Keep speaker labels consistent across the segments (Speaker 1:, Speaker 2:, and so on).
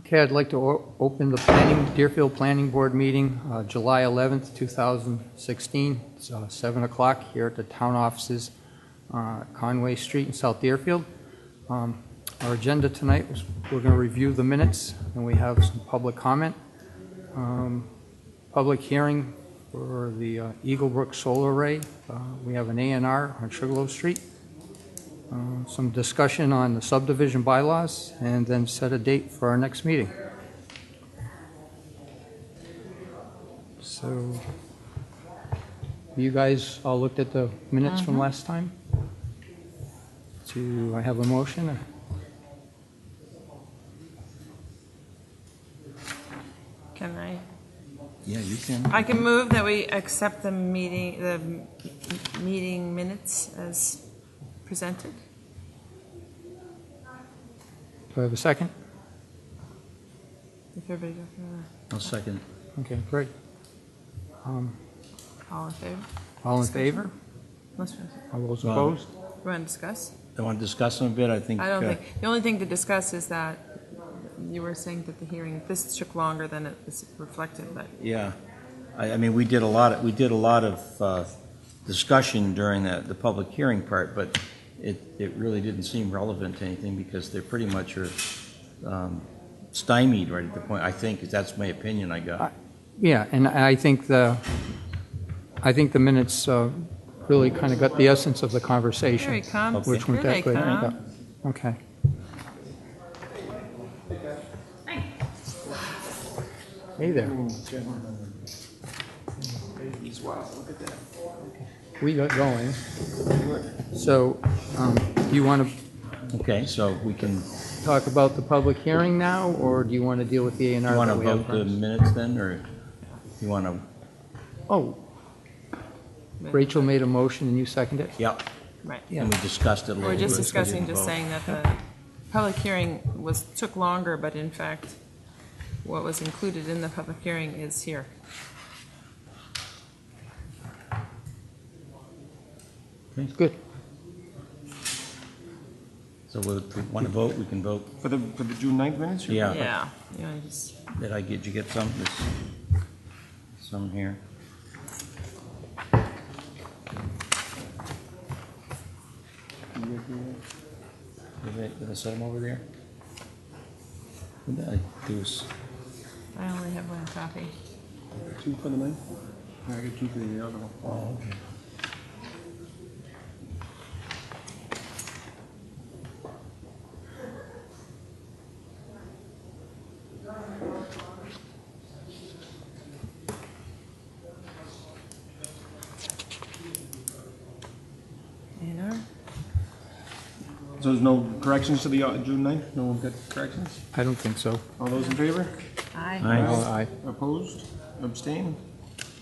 Speaker 1: Okay, I'd like to o- open the planning, Deerfield Planning Board meeting, uh, July 11th, 2016. It's uh, 7 o'clock here at the town offices, uh, Conway Street in South Deerfield. Um, Our agenda tonight was, we're going to review the minutes, and we have some public comment. Um, Public hearing for the uh, Eagle Brook Solar Array. Uh, We have an A and R on Sugarloaf Street. Uh, Some discussion on the subdivision bylaws, and then set a date for our next meeting. So, you guys all looked at the minutes from last time? Do I have a motion?
Speaker 2: Can I?
Speaker 3: Yeah, you can.
Speaker 2: I can move that we accept the meeting, the m- meeting minutes as presented.
Speaker 1: Do I have a second?
Speaker 2: If everybody goes through
Speaker 3: I'll second.
Speaker 1: Okay, great. Um,
Speaker 2: that. All in favor?
Speaker 1: All in favor?
Speaker 2: Let's run-
Speaker 1: All those
Speaker 3: Aye.
Speaker 1: opposed?
Speaker 2: run discuss.
Speaker 3: I want to discuss them a bit, I
Speaker 1: Mm,
Speaker 3: think.
Speaker 2: I don't
Speaker 3: uh,
Speaker 2: think, the only thing to discuss is that you were saying that the hearing, this took longer than it was reflected, but
Speaker 3: Yeah, I, I mean, we did a lot, of- we did a lot of uh, discussion during the, the public hearing part, but it, it really didn't seem relevant to anything because they pretty much are um, stymied right at the point, I think, that's my opinion I
Speaker 1: Uh,
Speaker 3: got.
Speaker 1: Yeah, and I think the, I think the minutes uh, really kind of got the essence of the conversation.
Speaker 2: here he comes.
Speaker 1: Which
Speaker 2: Here
Speaker 1: went
Speaker 2: they
Speaker 1: that way.
Speaker 2: come.
Speaker 1: Yeah. Okay. Hey there. We got going. So, um, do you want to
Speaker 3: Okay, so we can,
Speaker 1: talk about the public hearing now, or do you want to deal with the A and
Speaker 3: you
Speaker 1: R
Speaker 3: want to
Speaker 1: that we have?
Speaker 3: vote the
Speaker 1: first?
Speaker 3: minutes then, or you want to,
Speaker 1: Oh, Rachel made a motion and you seconded it?
Speaker 3: yeah,
Speaker 2: Right.
Speaker 3: and we discussed it a little
Speaker 2: We're
Speaker 3: bit.
Speaker 2: just
Speaker 3: so we
Speaker 2: discussing,
Speaker 3: didn't
Speaker 2: just
Speaker 3: vote.
Speaker 2: saying that the public hearing was, took longer, but in fact, what was included in the public hearing is here.
Speaker 1: Good.
Speaker 3: So we want to vote, we can vote,
Speaker 4: For the, for the June 9th minutes? or-
Speaker 3: yeah.
Speaker 2: Yeah, you know, just,
Speaker 3: Did I get, you get some, this, some here? Did I, did I set them over there? What did I do? s-
Speaker 2: I only have one copy.
Speaker 4: Two for the 9th? Yeah, I got two for the other one.
Speaker 3: Oh, okay.
Speaker 2: You know?
Speaker 4: So there's no corrections to the uh, June 9th? No one got corrections?
Speaker 1: I don't think so.
Speaker 4: All those in favor?
Speaker 2: Aye.
Speaker 1: Aye.
Speaker 4: Opposed? Abstained?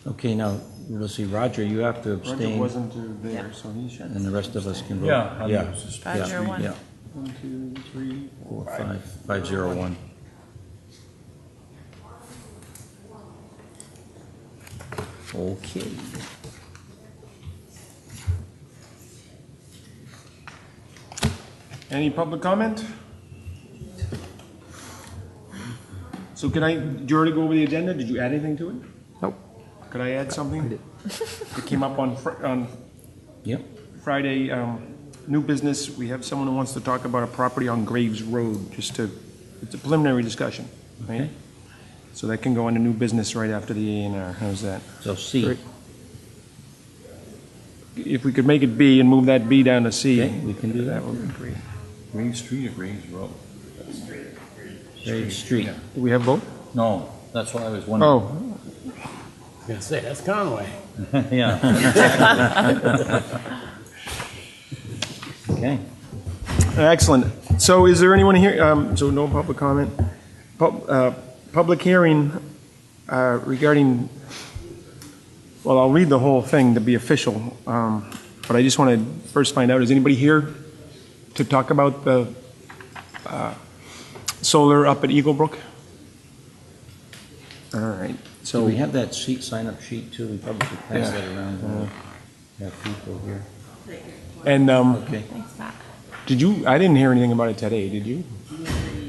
Speaker 3: Okay, now, let's see, Roger, you have to
Speaker 4: Roger
Speaker 3: abstain,
Speaker 4: wasn't uh, there, so he should.
Speaker 3: and the rest of us can vote.
Speaker 5: Yeah, I'm
Speaker 3: Yeah,
Speaker 2: Five
Speaker 3: yeah,
Speaker 2: zero one.
Speaker 3: Yeah,
Speaker 4: One, two, three,
Speaker 3: four, five, five, zero, one. Okay.
Speaker 4: Any public comment? So can I, did you already go over the agenda? Did you add anything to it?
Speaker 1: Nope.
Speaker 4: Could I add something? It came up on, Fri- on
Speaker 3: Yep,
Speaker 4: Friday, um, new business, we have someone who wants to talk about a property on Graves Road, just to, it's a preliminary discussion, right?
Speaker 3: Okay.
Speaker 4: So that can go into new business right after the A and R, how's that?
Speaker 3: so C,
Speaker 1: Great.
Speaker 4: If we could make it B and move that B down to C.
Speaker 3: Okay, we can do that.
Speaker 4: would be great.
Speaker 5: Graves Street or Graves Road?
Speaker 3: Grave Street.
Speaker 4: Do we have both?
Speaker 5: No, that's what I was wondering.
Speaker 4: Oh,
Speaker 6: Gonna say, that's Conway.
Speaker 3: Oh. Yeah. Okay,
Speaker 4: excellent. So is there anyone here, um, so no public comment? Pub, uh, public hearing, uh, regarding, well, I'll read the whole thing to be official, um, but I just want to first find out, is anybody here to talk about the, uh, solar up at Eagle Brook? All right,
Speaker 3: so
Speaker 4: so,
Speaker 3: we have that sheet, sign-up sheet too, we probably should pass
Speaker 4: Yeah.
Speaker 3: that around. uh, Have people here.
Speaker 4: and, um,
Speaker 3: Okay,
Speaker 2: Thanks, Matt.
Speaker 4: Did you, I didn't hear anything about it today, did you?